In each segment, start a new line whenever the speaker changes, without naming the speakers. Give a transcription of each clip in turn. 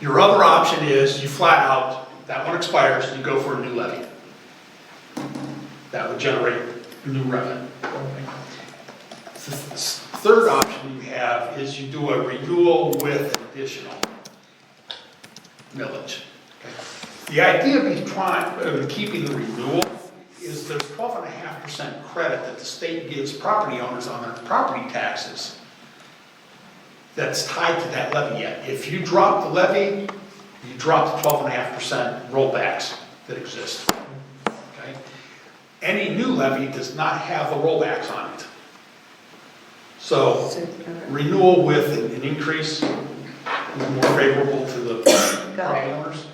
Your other option is you flat out, that one expires, you go for a new levy. That would generate new revenue. The Third option you have is you do a renewal with additional millage. The idea of trying, of keeping the renewal is the twelve and a half percent credit that the state gives property owners on their property taxes that's tied to that levy yet. If you drop the levy, you drop the twelve and a half percent rollbacks that exist. Okay? Any new levy does not have the rollbacks on it. So renewal with an an increase is more favorable to the property owners,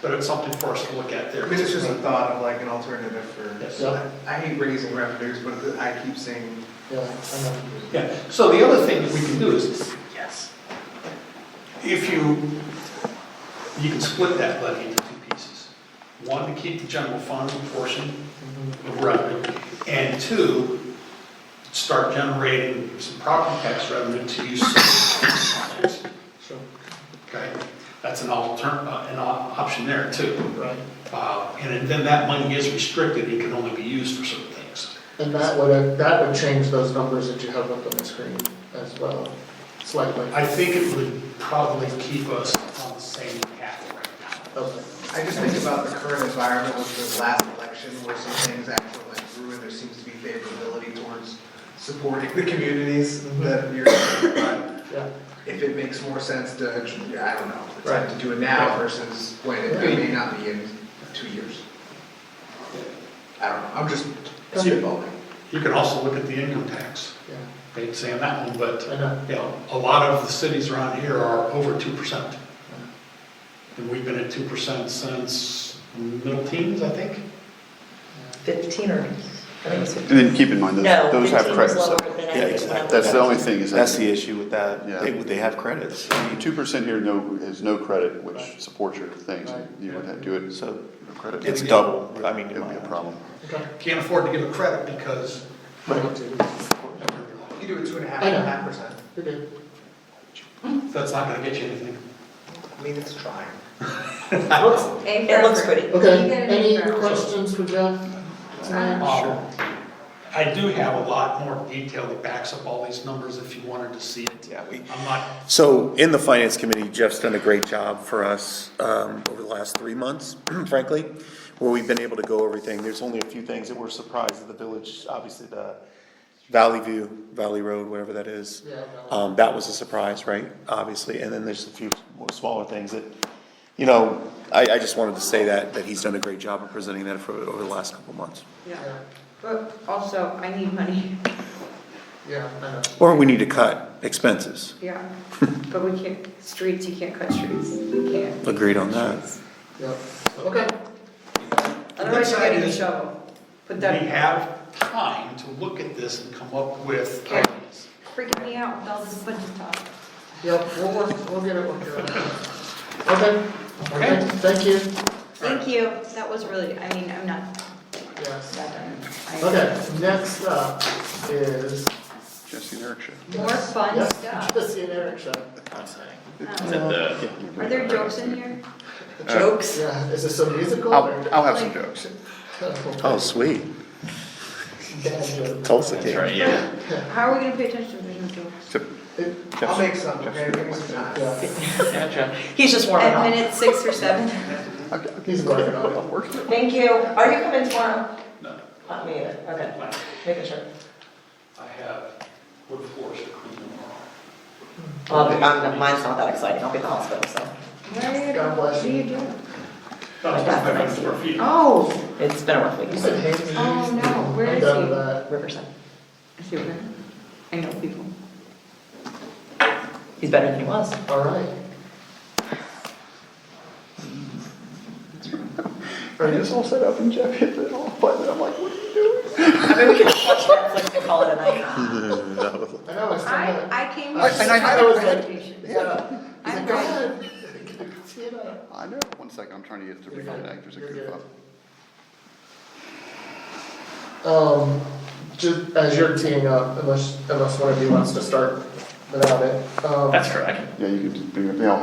but it's something for us to look at there.
I mean, it's just a thought of like an alternative for,
Yes.
Yeah,
I hate raising revenues, but I keep saying,
yeah, I know.
Yeah, so the other thing that we can do is,
yes.
if you, you can split that levy into two pieces. One, to keep the general fund portion of revenue, and two, start generating some property tax revenue to use.
Sure.
Okay, that's an altern, uh, an op- option there too.
Right.
Uh, And then that money is restricted, it can only be used for certain things.
And that would, uh, that would change those numbers that you have up on the screen as well, slightly.
I think it would probably keep us on the same path right now.
Okay.
I just think about the current environment with the last election where some things actually went through and there seems to be favorability towards supporting the communities
Mm-hmm.
that you're, but
Yeah,
if it makes more sense to, I don't know,
Right.
to do it now versus when it may not be in two years. I don't know, I'm just
So you-
spitballing.
You can also look at the income tax.
yeah,
Hate saying that one, but,
I know.
you know, a lot of the cities around here are over two percent. And we've been at two percent since middle teens, I think.
15 or, I think it's 15.
And then keep in mind,
No,
those, those have
15 is
credits.
lower
though.
than I
Yeah,
think
exactly.
when I
That's the
was-
only thing is
That's
that
the issue with that,
Yeah.
they, they have credits,
two percent here, no, is no credit, which supports your things.
Right.
You would have to do it, so
so
credit.
it's double, I mean, uh,
It would be a problem.
Okay.
Can't afford to give a credit because.
You do it two and a half,
I know.
half percent.
You're good.
That's not gonna get you anything.
I mean, it's trying.
It looks pretty.
Okay, any questions for Jeff? tonight?
Um, I do have a lot more detail that backs up all these numbers if you wanted to see it.
Yeah, we,
I'm not,
So in the finance committee, Jeff's done a great job for us um, over the last three months, frankly, where we've been able to go everything. There's only a few things that we're surprised at the village, obviously the Valley View, Valley Road, whatever that is.
Yeah, Valley.
Um, That was a surprise, right? Obviously, and then there's a few more smaller things that, you know, I, I just wanted to say that, that he's done a great job of presenting that for, over the last couple of months.
Yeah,
But also, I need money,
yeah, I know.
Or we need to cut expenses.
yeah, but we can't, streets, you can't cut streets, you can't.
Agreed on that.
Yep, okay.
Otherwise, you're getting a shovel, put
we
that,
have time to look at this and come up with
Yeah.
ideas.
freaking me out with all this budget talk.
Yep, we'll work, we'll get it worked out. Okay.
Okay.
Thank you,
Thank you, that was really, I mean, I'm not
yes.
that done. I-
Okay, next up is.
Jesse and Eric should.
More fun
Yep,
stuff.
Jesse and Eric show.
Um, Are there jokes in here?
Jokes.
Yeah, is this a musical or?
I'll, I'll have some jokes.
Um,
Oh, sweet.
Bad joke.
Tulsa King.
How are we gonna pay attention if there's no jokes?
So,
It-
I'll make some, okay, give me some time.
yeah,
He's just warming
At
up.
minute six or seven?
He's working on it.
Thank you. Are you coming tomorrow?
No.
Not me either. Okay, making sure.
I have wood floors to clean tomorrow.
Well, I'm- I'm- mine's not that exciting. I'll be in the hospital, so.
Where-
God bless you.
What are you doing?
No, it's not five hundred square feet.
Oh,
It's been a rough week.
You said Hayes.
oh no, where
I'm
is
done with
he?
that.
Riverside.
I see where, I know people.
He's better than he was.
All right.
I just all set up and Jeff hit the off button. I'm like, what are you doing?
I mean, we could just watch Netflix and call it a night.
I know, I still
I,
have.
I came.
I- and I
with
thought it was
a
like-
presentation.
Yeah.
I'm
He's like, go ahead. See you later.
I know. One second, I'm trying to get it to
You're fine.
reconnect. There's a
You're
goof
good.
up.
Um, just as you're teeing up, unless, unless one of you wants to start without it. um,
That's correct.
Yeah, you could, do- yeah,